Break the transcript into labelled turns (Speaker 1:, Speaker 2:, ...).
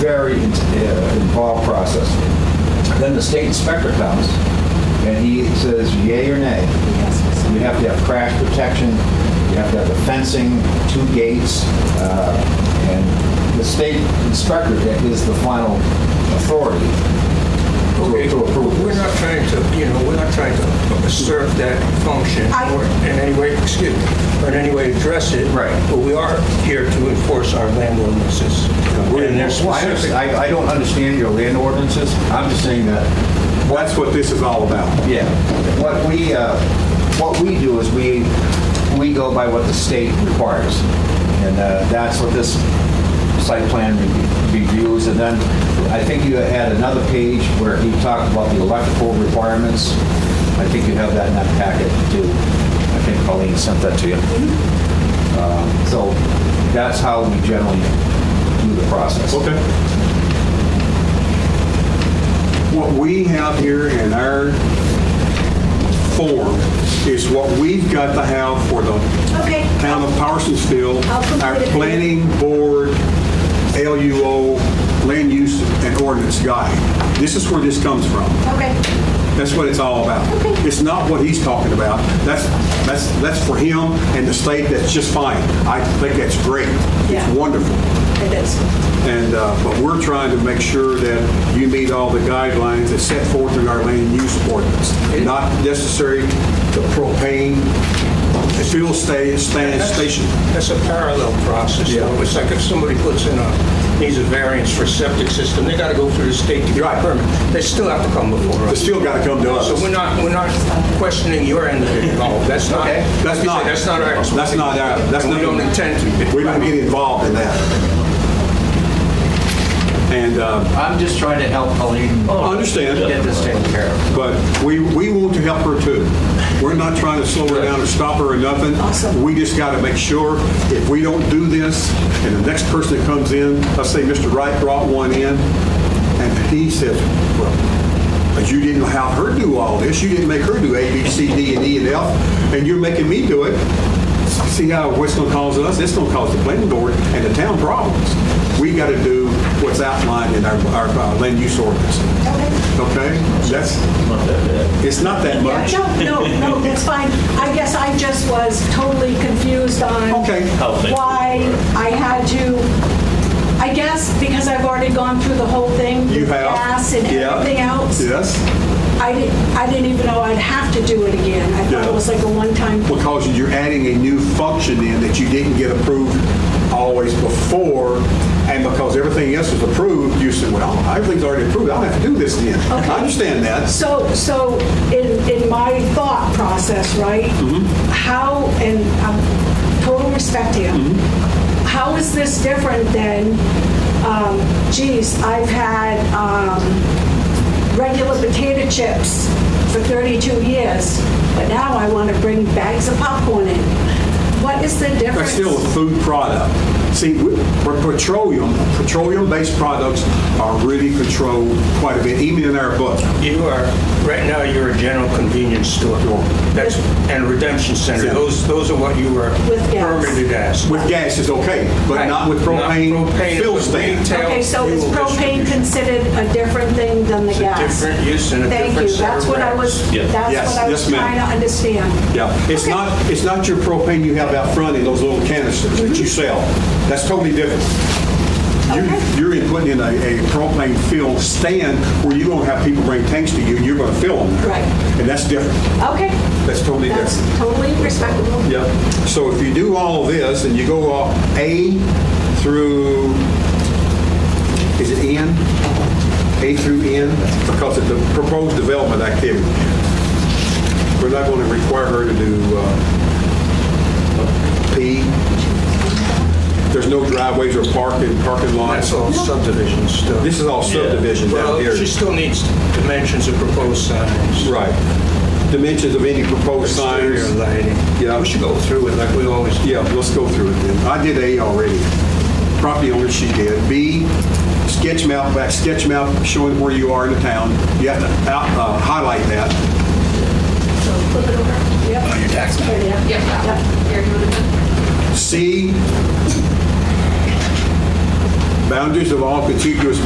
Speaker 1: very in- uh, involved process. Then the state inspector comes, and he says yay or nay. You have to have crash protection, you have to have the fencing, two gates, uh, and the state inspector that is the final authority
Speaker 2: Okay,
Speaker 1: to- to approve
Speaker 2: we're
Speaker 1: this.
Speaker 2: not trying to, you know, we're not trying to assert that function
Speaker 3: I-
Speaker 2: or in any way, excuse me, or in any way address it.
Speaker 1: Right.
Speaker 2: But we are here to enforce our land ordinances.
Speaker 1: We're in
Speaker 2: And
Speaker 1: there
Speaker 2: they're
Speaker 1: specific.
Speaker 2: specific.
Speaker 1: I, I don't understand your land ordinances. I'm just saying that,
Speaker 4: That's what this is all about.
Speaker 1: yeah, what we, uh, what we do is we, we go by what the state requires. And uh, that's what this site plan re- reviews. And then I think you had another page where he talked about the electrical requirements. I think you have that in that packet too. I think Colleen sent that to you. Um, So that's how we generally do the process.
Speaker 4: Okay. What we have here in our form is what we've got to have for the
Speaker 3: Okay.
Speaker 4: town of Parsonsville,
Speaker 3: I'll complete
Speaker 4: our
Speaker 3: it.
Speaker 4: planning board, LUO, land use and ordinance guide. This is where this comes from.
Speaker 3: Okay.
Speaker 4: That's what it's all about.
Speaker 3: Okay.
Speaker 4: It's not what he's talking about. That's, that's, that's for him and the state, that's just fine. I think that's great.
Speaker 3: Yeah.
Speaker 4: It's wonderful.
Speaker 3: It is.
Speaker 4: And, uh, but we're trying to make sure that you meet all the guidelines that's set forth in our land use ordinance. Not necessary to propane, fuel sta- stand
Speaker 2: That's-
Speaker 4: station.
Speaker 2: That's a parallel process.
Speaker 4: Yeah.
Speaker 2: though. It's like if somebody puts in a, needs a variance for septic system, they got to go through the state to get
Speaker 4: Right.
Speaker 2: a permit. They still have to come before
Speaker 4: They
Speaker 2: us.
Speaker 4: still got to come to us.
Speaker 2: So we're not, we're not questioning your end of it at all. That's not,
Speaker 4: Okay. That's
Speaker 2: like you
Speaker 4: not-
Speaker 2: said, that's not our expertise.
Speaker 4: That's not our- that's
Speaker 2: And We
Speaker 4: not-
Speaker 2: don't intend to.
Speaker 4: We don't get involved in that. And, uh, Oh,
Speaker 5: I'm just trying to help Colleen.
Speaker 4: I understand.
Speaker 5: Get this taken care of.
Speaker 4: But we, we want to help her too. We're not trying to slow her down or stop her or nothing.
Speaker 3: Awesome.
Speaker 4: We just got to make sure if we don't do this, and the next person that comes in, let's say Mr. Wright brought one in, and he says, well, but you didn't have her do all this. You didn't make her do A, B, C, D, and E, and F, and you're making me do it. See how what's going to cause us? It's going to cause the planning board and the town problems. We got to do what's outlined in our, our uh, land use ordinance.
Speaker 3: Okay.
Speaker 4: Okay, that's, it's not that
Speaker 3: Yeah,
Speaker 4: much.
Speaker 3: no, no, no, that's fine. I guess I just was totally confused on
Speaker 4: Okay. How
Speaker 3: why I had to, I guess because I've already gone through the whole thing.
Speaker 4: You
Speaker 3: with
Speaker 4: have.
Speaker 3: Gas and
Speaker 4: Yeah.
Speaker 3: everything else.
Speaker 4: Yes,
Speaker 3: I didn't, I didn't even know I'd have to do it again. I thought
Speaker 4: Yeah.
Speaker 3: it was like a one-time.
Speaker 4: because you're adding a new function in that you didn't get approved always before, and because everything else was approved, you said, well, everything's already approved, I don't have to do this then. I understand that.
Speaker 3: So, so in, in my thought process, right? How, and I'm total respect to you, how is this different than, um, geez, I've had um, regular potato chips for 32 years, but now I want to bring bags of popcorn in? What is the difference?
Speaker 4: That's still a food product. See, we- for petroleum, petroleum-based products are really controlled quite a bit, even in our book.
Speaker 2: You are, right now, you're a general convenience store. That's, and redemption center.
Speaker 4: Yeah.
Speaker 2: Those, those are what you were
Speaker 3: With gas.
Speaker 2: permitted as.
Speaker 4: With gas is okay, but
Speaker 2: Right.
Speaker 4: not with
Speaker 2: Not
Speaker 4: propane
Speaker 2: propane,
Speaker 4: fill
Speaker 2: but
Speaker 4: stand.
Speaker 2: retail
Speaker 3: Okay, so is
Speaker 2: fuel
Speaker 3: propane
Speaker 2: distribution.
Speaker 3: considered a different thing than the
Speaker 2: It's a
Speaker 3: gas?
Speaker 2: different use and a different
Speaker 3: Thank you,
Speaker 2: set
Speaker 3: that's
Speaker 2: of
Speaker 3: what I was,
Speaker 2: regs.
Speaker 4: Yes,
Speaker 3: that's what I
Speaker 4: yes,
Speaker 3: was
Speaker 4: ma'am.
Speaker 3: trying to understand.
Speaker 4: Yeah, it's not, it's not your propane you have out front in those little canisters that
Speaker 3: Mm-hmm.
Speaker 4: you sell. That's totally different.
Speaker 3: Okay.
Speaker 4: You- You're putting in a a propane fill stand where you don't have people bring tanks to you, and you're going to fill them there.
Speaker 3: Right.
Speaker 4: And that's different.
Speaker 3: Okay,
Speaker 4: That's totally
Speaker 3: that's
Speaker 4: different.
Speaker 3: totally respectable.
Speaker 4: Yeah. So if you do all this and you go off A through, is it N? A through N, because of the proposed development activity. We're not going to require her to do uh, P. There's no driveways or parking, parking
Speaker 2: That's
Speaker 4: lots.
Speaker 2: all subdivision stuff.
Speaker 4: This is all subdivision down here.
Speaker 2: Well, she still needs dimensions of proposed signs.
Speaker 4: Right. Dimensions of any proposed
Speaker 2: Exterior
Speaker 4: signs.
Speaker 2: lighting.
Speaker 4: Yeah.
Speaker 2: We should go through it like we always do.
Speaker 4: Yeah, let's go through it then. I did A already. Property owner, she did. B, sketch map, back sketch map showing where you are in the town. You have to out- uh, highlight that.
Speaker 3: So flip it over. Yep. Oh, your tax
Speaker 6: Yep. Here, you want to?
Speaker 4: C, boundaries of all contiguous